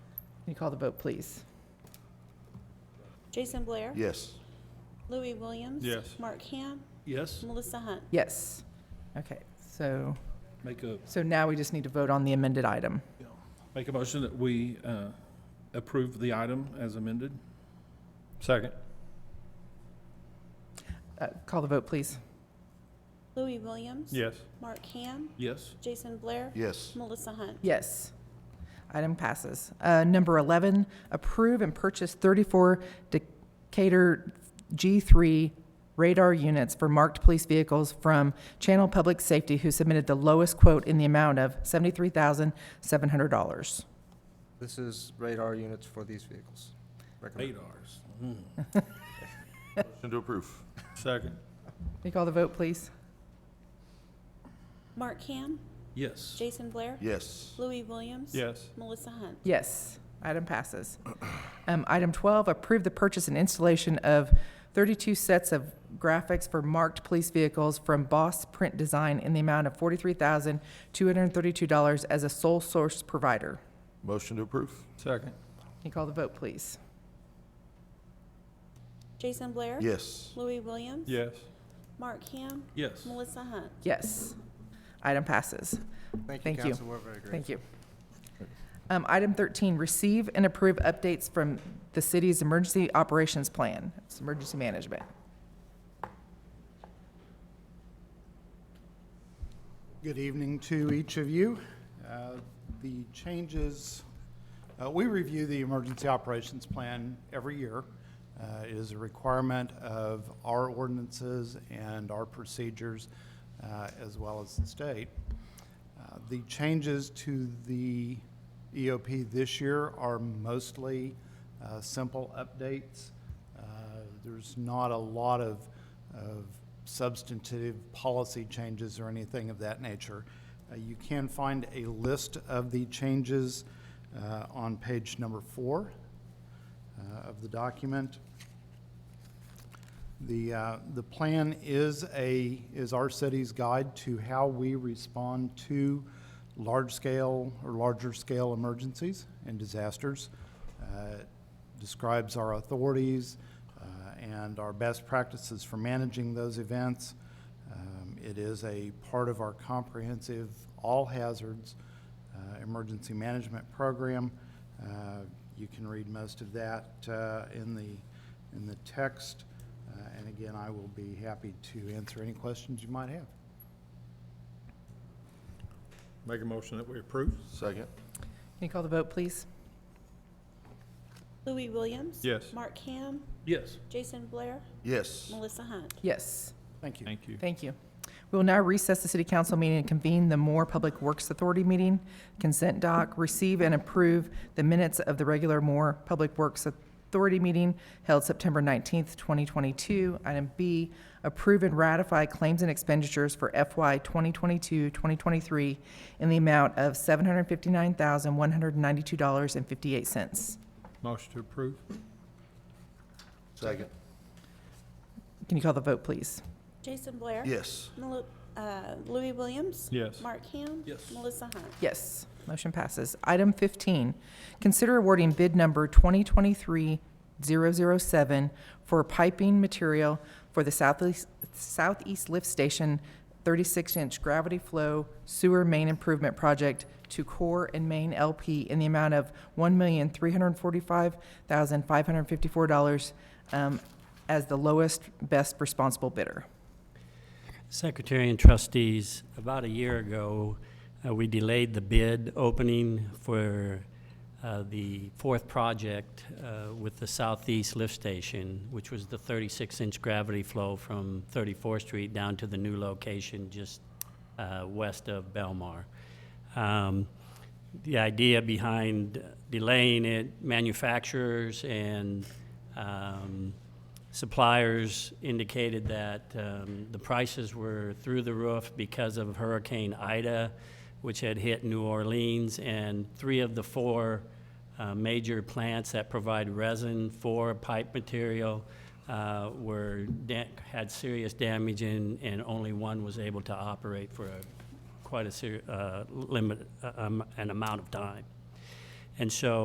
you call the vote, please? Jason Blair. Yes. Louis Williams. Yes. Mark Ham. Yes, Melissa Hunt. Yes. Okay, so, make a, so now we just need to vote on the amended item. make a motion that we uh, approve the item as amended. Second. Uh, Call the vote, please. Louis Williams. Yes. Mark Ham. Yes, Jason Blair. Yes. Melissa Hunt. Yes. Item passes. Uh, Number 11, approve and purchase 34 Decatur G3 radar units for marked police vehicles from Channel Public Safety, who submitted the lowest quote in the amount of $73,700. This is radar units for these vehicles. Recommend. radars. Motion to approve. Second. Can you call the vote, please? Mark Ham. Yes, Jason Blair. Yes. Louis Williams. Yes. Melissa Hunt. Yes, item passes. Um, Item 12, approve the purchase and installation of 32 sets of graphics for marked police vehicles from Boss Print Design in the amount of $43,232 as a sole source provider. Motion to approve. Second. Can you call the vote, please? Jason Blair. Yes. Louis Williams. Yes. Mark Ham. yes, Melissa Hunt. Yes, item passes. Thank Thank you, you. council. We're very grateful. Thank you. Um, Item 13, receive and approve updates from the city's emergency operations plan, it's emergency management. Good evening to each of you. Uh, The changes, uh, we review the emergency operations plan every year. Uh, It is a requirement of our ordinances and our procedures, uh, as well as the state. Uh, The changes to the EOP this year are mostly uh, simple updates. Uh, There's not a lot of, of substantive policy changes or anything of that nature. Uh, You can find a list of the changes uh, on page number four uh, of the document. The, uh, the plan is a, is our city's guide to how we respond to large-scale or larger-scale emergencies and disasters. Uh, it Describes our authorities uh, and our best practices for managing those events. Um, It is a part of our comprehensive all hazards uh, emergency management program. Uh, You can read most of that uh, in the, in the text. Uh, And again, I will be happy to answer any questions you might have. Make a motion that we approve? Second. Can you call the vote, please? Louis Williams. Yes. Mark Ham. yes. Jason Blair. Yes. Melissa Hunt. Yes. Thank you. Thank you. Thank you. We will now recess the city council meeting and convene the Moore Public Works Authority meeting. Consent doc, receive and approve the minutes of the regular Moore Public Works Authority meeting held September 19th, 2022. Item B, approve and ratify claims and expenditures for FY 2022-2023 in the amount of $759,192.58. Motion to approve? Second. Can you call the vote, please? Jason Blair. Yes. Mel- uh, Louis Williams. Yes. Mark Ham. Yes. Melissa Hunt. Yes, motion passes. Item 15, consider awarding bid number 2023-007 for piping material for the southeast southeast lift station 36-inch gravity flow sewer main improvement project to Core and Main LP in the amount of $1,345,554 um, as the lowest, best responsible bidder. Secretary and trustees, about a year ago, uh, we delayed the bid opening for uh, the fourth project uh, with the Southeast Lift Station, which was the 36-inch gravity flow from 34th Street down to the new location just uh, west of Belmar. Um, The idea behind delaying it, manufacturers and um, suppliers indicated that um, the prices were through the roof because of Hurricane Ida, which had hit New Orleans, and three of the four uh, major plants that provide resin for pipe material uh, were da- had serious damage, and, and only one was able to operate for a, quite a ser- uh, limit uh, um, an amount of time. And so